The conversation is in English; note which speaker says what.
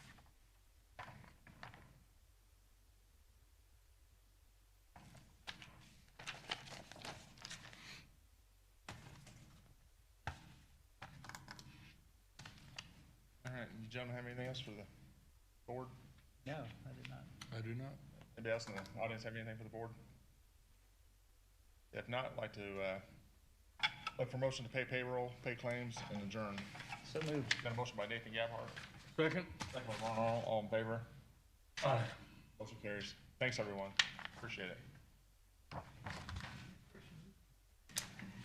Speaker 1: gentlemen have anything else for the board?
Speaker 2: No, I did not.
Speaker 3: I do not.
Speaker 1: Anybody else in the audience have anything for the board? If not, I'd like to, uh, look for motion to pay payroll, pay claims, and adjourn.
Speaker 2: So moved.
Speaker 1: Got a motion by Nathan Gabhart,
Speaker 3: Second?
Speaker 1: second by Ron Aron, all in favor? Motion carries. Thanks, everyone. Appreciate it.